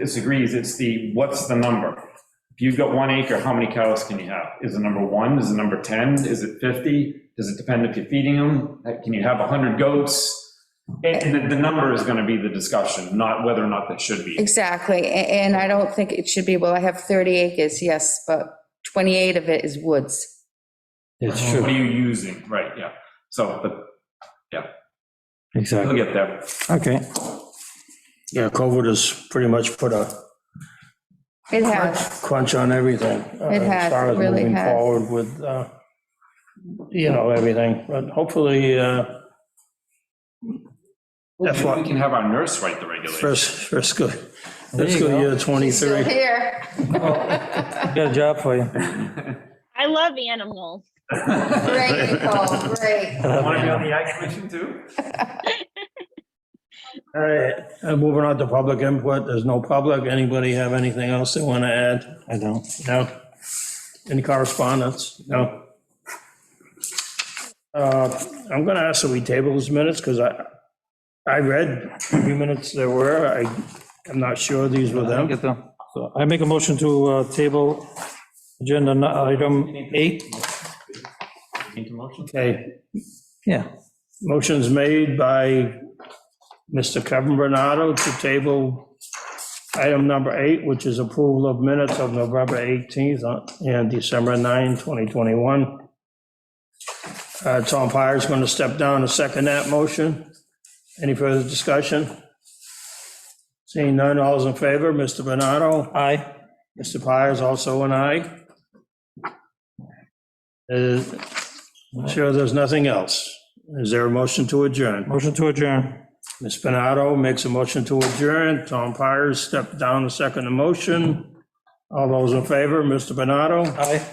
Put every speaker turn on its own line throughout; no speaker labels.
disagrees, it's the, what's the number? If you've got one acre, how many cows can you have? Is it number one, is it number 10, is it 50? Does it depend if you're feeding them? Like, Can you have 100 goats? And- And the- the number is going to be the discussion, not whether or not they should be.
Exactly, a- and I don't think it should be, well, I have 30 acres, yes, but 28 of it is woods.
It's
What
Oh.
true,
are you using, right, yeah. So, but we'll
exactly.
get there.
Okay. Yeah, COVID has pretty much put a
It has,
crunch on everything. uh,
It has,
As far as
it really
moving
has.
forward with, uh, you know, everything, but hopefully, uh, that's
Maybe
what,
We can have our nurse write the regulations.
first, first good, fiscal year
still
23.
here.
Got a job for you.
I love animals.
Great, Nicole, great.
Want to be on the ag commission too?
All right, and moving on to public input, there's no public. Anybody have anything else they want to add? I don't. No? Any correspondence? No? Uh, I'm going to ask that we table these minutes because I, I read the minutes there were. I, I'm not sure these were
I
them.
get them. So I make a motion to uh, table agenda nu- item eight.
Need a motion?
Okay,
Yeah,
motion's made by Mr. Kevin Bernardo to table item number eight, which is approval of minutes of November 18th and December 9, 2021. Uh, Tom Pyer's going to step down and second that motion. Any further discussion? Seeing none, all's in favor, Mr. Bernardo? Aye. Mr. Pyer's also an aye. Uh, I'm Sure, there's nothing else. Is there a motion to adjourn?
motion to adjourn.
Ms. Benado makes a motion to adjourn. Tom Pires stepped down to second the motion. All those in favor, Mr. Benado?
Aye.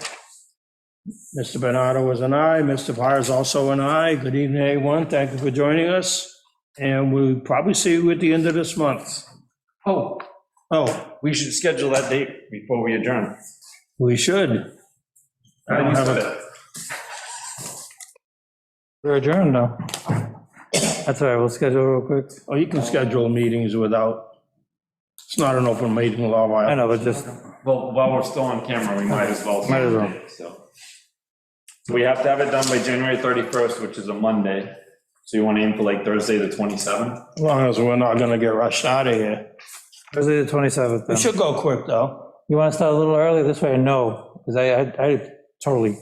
Mr. Benado was an aye. Mr. Pires also an aye. Good evening, everyone. Thank you for joining us. And we'll probably see you at the end of this month.
Oh,
Oh,
we should schedule that date before we adjourn.
we should. I don't have a-
We're adjourned now. That's all right, we'll schedule real quick.
Oh, you can schedule meetings without, it's not an open meeting law.
I
violation.
know, but just,
Well, while we're still on camera, we might as well.
Might as well.
So So we have to have it done by January 31st, which is a Monday. So you want to aim for like Thursday, the 27th?
As long as we're not going to get rushed out of here.
Thursday the 27th
We
then.
should go quick, though.
You want to start a little early this way or no? Because I, I- I totally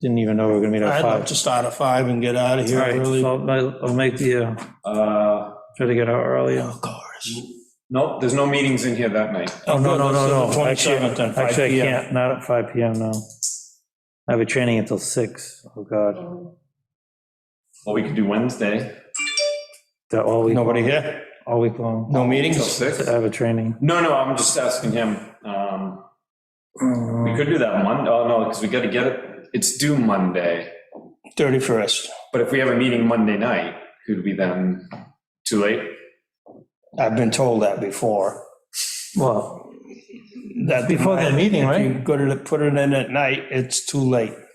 didn't even know we were going to meet at
I'd
five.
like to start at five and get out of
All
here
right,
early.
so I'll- I'll make the, uh,
Uh,
try to get out earlier.
Of course.
Nope, there's no meetings in here that night.
Oh, no, no, no, no. Actually-
Twenty-seventh and five
Actually, I
PM.
can't, not at 5 PM, no. I have a training until 6. Oh, God.
Well, we could do Wednesday.
That all week,
Nobody here?
all week long.
No
Till
meetings?
six?
I have a training.
No, no, I'm just asking him. Um, We could do that Monday. Oh, no, because we got to get it. It's due Monday.
Thirty-first,
But if we have a meeting Monday night, could we then, too late?
I've been told that before.
Well,
That
Before the
night,
meeting,
if you
right?
Go to put it in at night, it's too late.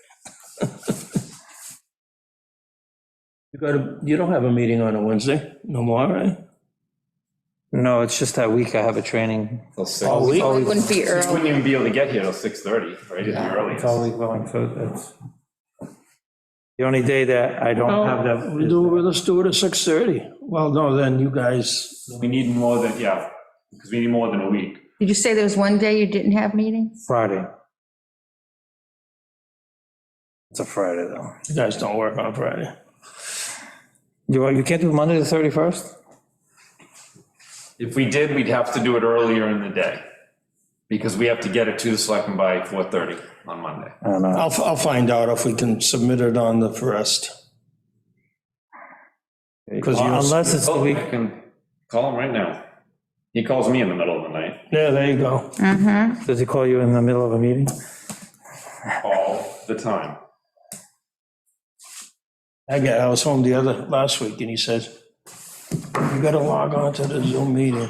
You go to, you don't have a meeting on a Wednesday, no more, right?
no, it's just that week I have a training.
Till six?
All week?
It wouldn't be
You
early.
wouldn't even be able to get here till 6:30, right? It's
It's all
early.
week long, so it's. The only day that I don't have that.
We do, Oh, well, let's do it at six-thirty. Well, no, then you guys,
We need more than, yeah, because we need more than a week.
Did you say there was one day you didn't have meetings?
Friday. It's a Friday, though.
you guys don't work on Friday.
You, want- you can't do Monday the 31st?
If we did, we'd have to do it earlier in the day, because we have to get it to the selectmen by 4:30 on Monday.
I don't know.
I'll, I'll find out if we can submit it on the first. Because Oh, you.
Unless it's the
Oh,
week,
I can call him right now. He calls me in the middle of the night.
Yeah, there you go.
does he call you in the middle of a meeting?
All the time.
I got, I was home the other, last week, and he says, you gotta log on to the Zoom meeting.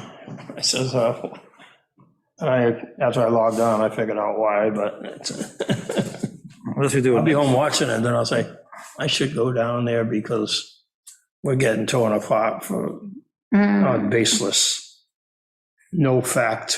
I says, oh. And I, after I logged on, I figured out why, but it's-
Unless we do
I'll be
it.
home watching it, then I'll say, I should go down there because we're getting torn apart for,
Mm.
on uh, baseless no fact.